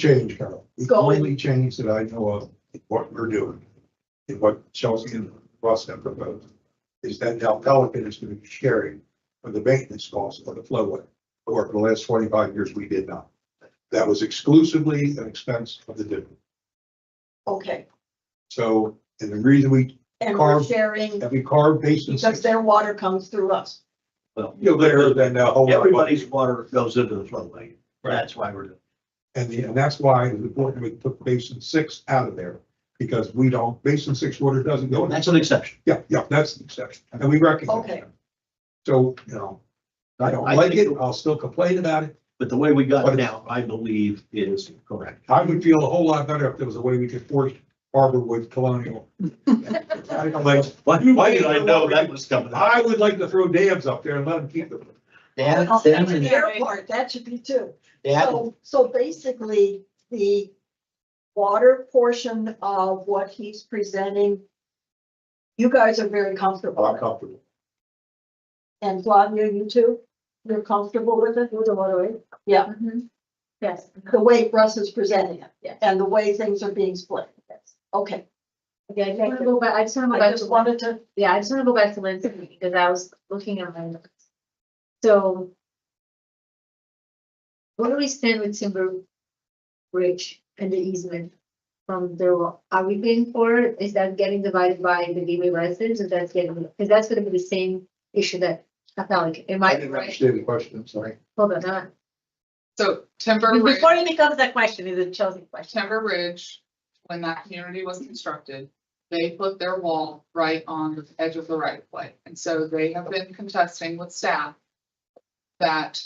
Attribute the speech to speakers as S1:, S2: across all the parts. S1: change, Carol. The
S2: Go.
S1: only change that I know of, what we're doing, and what Chelsea and Russ have proposed, is that now Pelican is gonna be sharing for the maintenance costs for the flowway. Or for the last twenty-five years, we did not. That was exclusively an expense of the district.
S2: Okay,
S1: So, and the reason we,
S2: and we're
S1: Carve-
S2: sharing
S1: that we carved basins,
S2: because their water comes through us.
S3: Well,
S1: you know, there, uh, then the whole.
S3: everybody's water goes into the flowway. That's why we're doing.
S1: And the, and that's why it's important we took basin six out of there, because we don't, basin six water doesn't go
S3: it.
S1: in.
S3: That's an exception.
S1: Yeah, yeah, that's the exception, and we recognize
S2: Okay.
S1: that. So, you know, I don't
S3: I
S1: like it,
S3: think-
S1: I'll still complain about it.
S3: But the way we got
S1: But-
S3: it now, I believe is correct.
S1: I would feel a whole lot better if there was a way we could force Harborwood Colonial. I don't like-
S3: Why, why did I know that was coming up?
S1: I would like to throw dams up there and let them keep them.
S4: That,
S2: Well, Oh, That's
S4: that's,
S2: the
S4: an-
S2: airport, that should be too.
S4: that,
S2: So, so basically, the water portion of what he's presenting, you guys are very comfortable.
S1: I'm
S2: with it.
S1: comfortable.
S2: And Flavia, you too? You're comfortable with it? With the water Yeah,
S5: Mm-hmm. Yes.
S2: the way Russ is presenting it
S5: Yes.
S2: and the way things are being split. Okay,
S5: Okay, I just wanna go back, I just wanna go
S2: I
S5: back
S2: just
S5: to,
S2: wanted to
S5: yeah, I just wanna go back to Lindsay because I was looking at my notes. So. Where do we stand with Timber Bridge and the easement from the, ro- are we paying for it? Is that getting divided by the gateway residents or that's getting, because that's gonna be the same issue that I felt like it
S1: I
S5: might be
S1: didn't
S5: right.
S1: understand the question, I'm sorry.
S5: Hold on, uh,
S6: So Timber Ridge,
S5: it becomes that question, is a Chelsea question.
S6: Timber Ridge, when that community was constructed, they put their wall right on the edge of the right of way. And so they have been contesting with staff that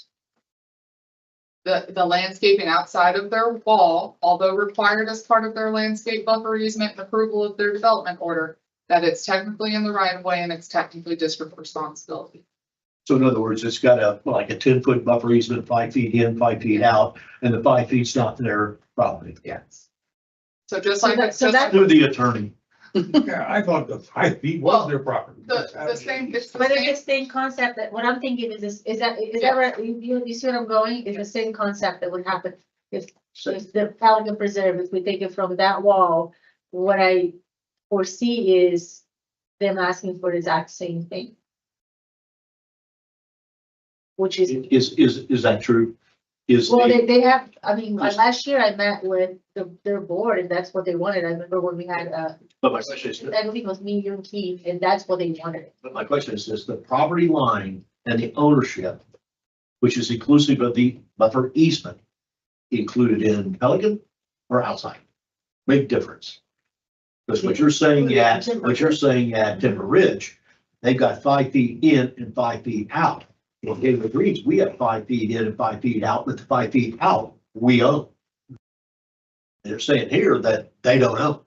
S6: the, the landscaping outside of their wall, although required as part of their landscape buffer easement and approval of their development order, that it's technically in the right of way and it's technically district responsibility.
S3: So in other words, it's got a, like a ten foot buffer easement, five feet in, five feet out, and the five feet's not their property.
S6: Yes. So just
S5: So
S6: like.
S5: that- so
S6: just
S5: that-
S3: Through the attorney.
S1: Yeah, I thought the five feet was their property.
S6: The, the same, it's the
S5: But
S6: same-
S5: it's the same concept that, what I'm thinking is, this is that, is that right, you, you- you see what I'm going, It's the same concept that would happen if, if the Pelican Preserve, if we take it from that wall, what I foresee is them asking for the exact same thing. Which is,
S3: Is, is, is that true? Is,
S5: well,
S3: the-
S5: they, they have, I mean, like, last year I met with the, their board, and that's what they wanted, I remember when we had, uh,
S3: but my question is,
S5: I believe it was me, you and Keith, and that's what they wanted.
S3: But my question is, is the property line and the ownership, which is inclusive of the buffer easement, included in Pelican or outside? Big difference. Because what you're saying at, what you're saying at Timber Ridge, they've got five feet in and five feet out. Well, David agrees, we have five feet in and five feet out, but the five feet out, we own. They're saying here that they don't own.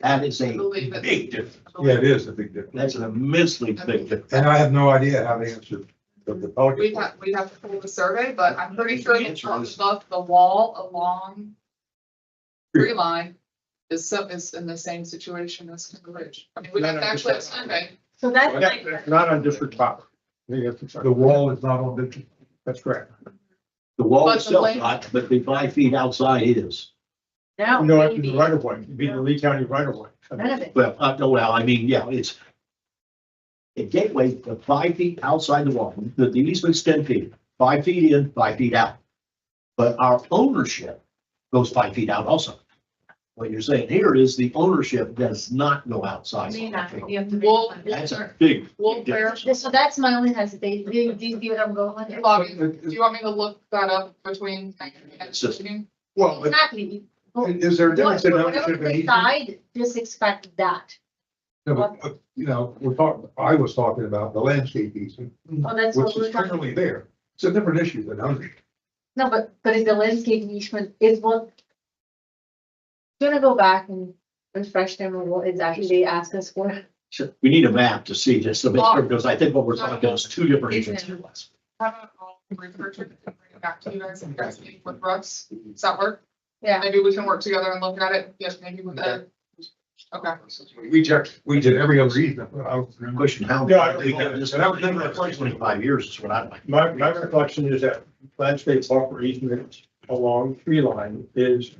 S3: That is
S6: I
S3: a
S6: believe it's-
S3: big difference.
S6: I believe
S1: Yeah, it is a big difference.
S3: That's an immensely big difference.
S1: And I have no idea how they answered the, the Pelican.
S6: We'd have, we'd have to pull the survey, but I'm pretty sure it's
S3: Answer is-
S6: above the wall along tree line is some, is in the same situation as the ridge. I mean, we'd
S7: No,
S6: have
S7: no,
S6: to
S7: just
S6: actually have
S7: that.
S6: survey.
S5: So that's
S7: Yeah,
S5: like.
S7: It's not on district property. I think that's-
S1: The wall is not on the, that's correct.
S3: The wall
S6: But the
S3: itself
S6: land-
S3: not, but the five feet outside is.
S5: Now.
S7: No, after the
S5: maybe-
S7: right of way, it'd be the Lee County right of way. I mean,
S5: None of it.
S3: Well, uh, no, well, I mean, yeah, it's. The gateway, the five feet outside the wall, the, the easement's ten feet, five feet in, five feet out. But our ownership goes five feet out also. What you're saying here is the ownership does not go outside.
S5: May
S6: uh,
S5: not, uh, you have to. make
S6: Well,
S5: it.
S3: That's a big.
S6: We'll bear,
S3: difference.
S5: So that's my only hesitation. Do you, do you see what I'm going with?
S1: Oh,
S6: Bobby, do you want me to look that up between?
S3: It's just-
S1: Well, but
S5: Exactly. What-
S1: is there a difference in
S5: Whatever
S1: ownership and
S5: the
S1: easement?
S5: side, just expect that.
S1: No, but, uh, You know, we're talking, I was talking about the landscape easement,
S5: Oh, that's
S1: which
S5: what we're
S1: is
S5: talking.
S1: currently there. It's a different issue than ownership.
S5: No, but, but is the landscape easement is what? Gonna go back and refresh them on what is actually they asked us for.
S3: So We need a map to see this, so make sure, because I think what we're talking about is two different
S5: Easement.
S3: issues.
S6: Have it all researched and bring it back to you guys, if you guys meet with Russ, does that work?
S5: Yeah.
S6: Maybe we can work together and look at it, yes, maybe with Ed. Okay.
S1: We checked, we did every other easement. but I don't remember.
S3: Question, how?
S7: Yeah, I don't
S3: we got this-
S7: think- that was never a question.
S3: Twenty-five years is what I'd like.
S7: My, my reflection is that landscape buffer easement along tree line is